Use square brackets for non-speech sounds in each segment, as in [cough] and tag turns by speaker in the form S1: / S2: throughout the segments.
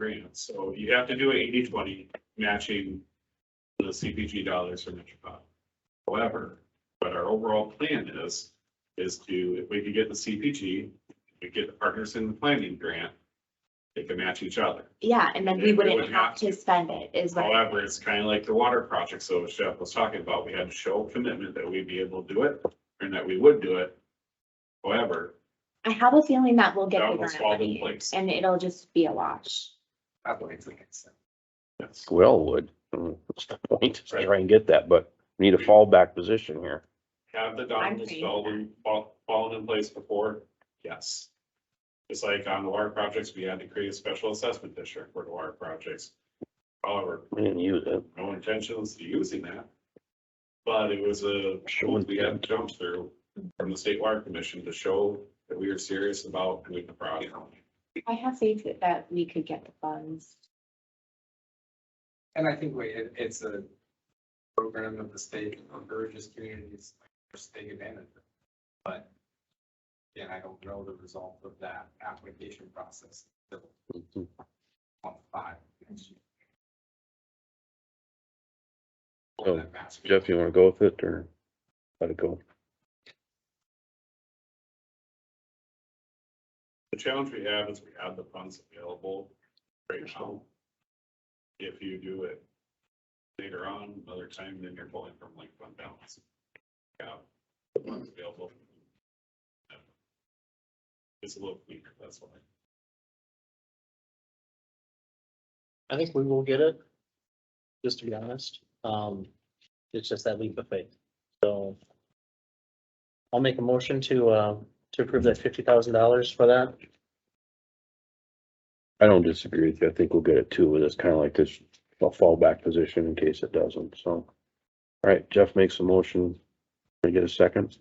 S1: grants, so you have to do 80-20 matching the CPG dollars for Metropolitan. However, but our overall plan is, is to, if we could get the CPG, we get the Partners in the Planning Grant, they can match each other.
S2: Yeah, and then
S1: Yeah,
S2: we
S1: we
S2: wouldn't
S1: wouldn't
S2: have
S1: have
S2: to spend it is what,
S1: However, it's kind of like the water project, so Chef was talking about, we had to show commitment that we'd be able to do it, and that we would do it. However,
S2: I have a feeling that we'll get
S1: That
S2: the
S1: will
S2: grant
S1: fall in
S2: money
S1: place.
S2: and it'll just be a wash.
S1: that's,
S3: We all would. What's the point? Just Try and get that, but we need a fallback position here.
S1: have the dominoes
S2: agree.
S1: fell in- fall- fallen in place before? Yes. It's like on the water projects, we had to create a special assessment district for the water projects. However,
S3: We didn't use it.
S1: no intentions to using that. But it was a,
S3: Sure.
S1: we had to jump through from the state water commission to show that we are serious about doing the project.
S2: I have faith that- that we could get the funds.
S4: And I think we, it, it's a program of the state encourages communities to take advantage of. it. But again, I don't know the result of that application process until month five next year.
S3: So, Jeff, you wanna go with it or let it go?
S1: The challenge we have is we have the funds available right now. If you do it later on, another time, then you're pulling from like fund balance. Yeah, the funds available. It's a little weak, that's why.
S5: I think we will get it, just to be honest. Um, it's just that leap of faith, so. I'll make a motion to, uh, to approve that fifty thousand dollars for that.
S3: I don't disagree with you. I think we'll get it too, but it's kinda like this a fallback position in case it doesn't, so. All right, Jeff makes a motion. Can I get a second?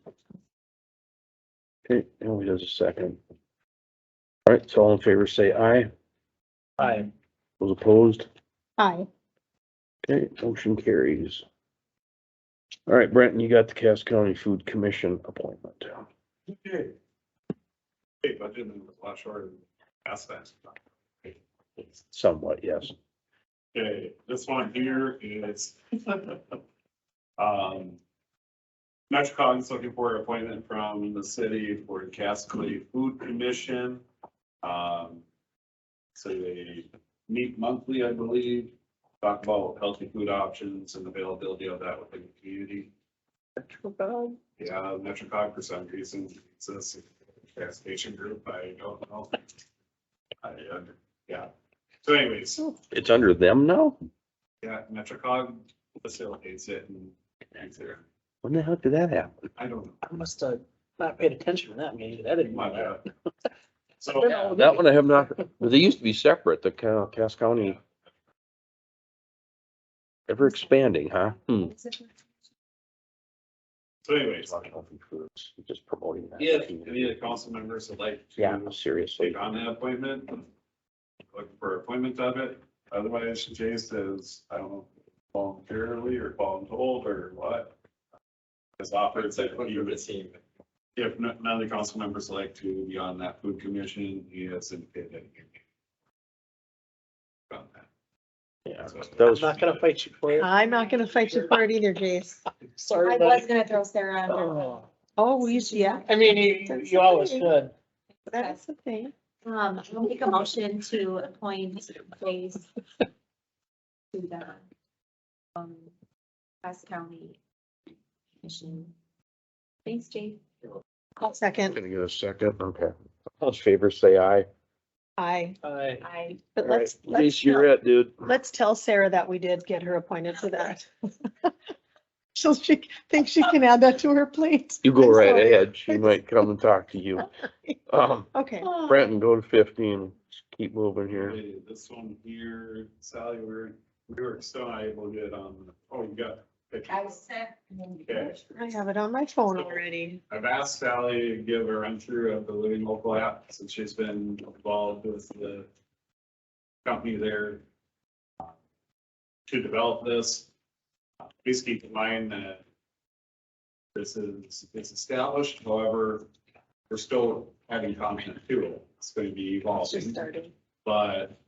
S3: Okay, and he does a second. All right, so all in favor, say aye.
S5: Aye.
S3: Those opposed?
S6: Aye.
S3: Okay, motion carries. All right, Brenton, you got the Cass County Food Commission appointment.
S1: Okay. Hey, budget was a lot shorter than last time.
S3: Somewhat, yes.
S1: Okay, this one here is. [laughs] Um. MetroCog is looking for an appointment from the city for the Cass County Food Commission. Um. So they meet monthly, I believe, talk about healthy food options and availability of that within the community. Yeah, MetroCog for some reason, it's a gas station group, I don't know. I, uh, yeah, so anyways.
S3: It's under them now?
S1: Yeah, Metrocog facilitates it and connects it.
S3: When the heck did that happen?
S1: I don't
S5: I must have not paid attention to that meeting, I
S1: know.
S5: didn't.
S1: My
S5: know
S1: bad. So,
S5: that.
S3: That one I have not, they used to be separate, the Ca- Cass County. Ever expanding, huh? Hmm.
S1: so anyways,
S3: Healthy foods, Just promoting that.
S1: if any of the council members would like
S3: Yeah,
S1: to
S3: seriously.
S1: take on that appointment, look for appointment of it. Otherwise, Jay says, I don't know, voluntarily or voluntold or what. His offer is
S4: It's like,
S1: that
S4: what
S1: he
S4: you
S1: would,
S4: would see, but
S1: if none none of the council members like to be on that food commission, he has indicated. that he can be on that.
S3: Yeah,
S1: So-
S3: that
S5: I'm
S3: was,
S5: not gonna fight you for it.
S6: I'm not gonna fight you for it either, Jace.
S5: Sorry,
S2: Uh, I was
S5: buddy.
S2: gonna throw Sarah under.
S5: Oh.
S6: Oh, we, yeah,
S5: I mean, you, you always should.
S6: that's the thing.
S2: Um, I'll make a motion to appoint Jace to the, um, Cass County Commission. Thanks, Jay.
S6: I'll second.
S3: gonna get a second, okay. All those favors say aye.
S6: Aye,
S5: Aye.
S2: I,
S6: but
S3: All right,
S6: let's, let's,
S3: Lisa, you're
S6: tell-
S3: it, dude.
S6: let's tell Sarah that we did get her appointed to that. [laughs] So she thinks she can add that to her plate.
S3: You go
S6: I'm
S3: right
S6: sorry.
S3: ahead. She might come and talk to you. Um,
S6: Okay,
S3: Brenton, go to fifteen. Keep moving here.
S1: Okay, This one here, Sally, we were, we were still not able to get on, oh, you got. it.
S2: I was set.
S1: Okay.
S6: I have it on my phone already.
S1: I've asked Sally to give a run through of the Living Local app, since she's been involved with the company there uh, to develop this. Uh, Please keep in mind that this is, it's established, however, we're still having content to it. It's going to be
S6: She
S1: evolving.
S6: started.
S1: But uh,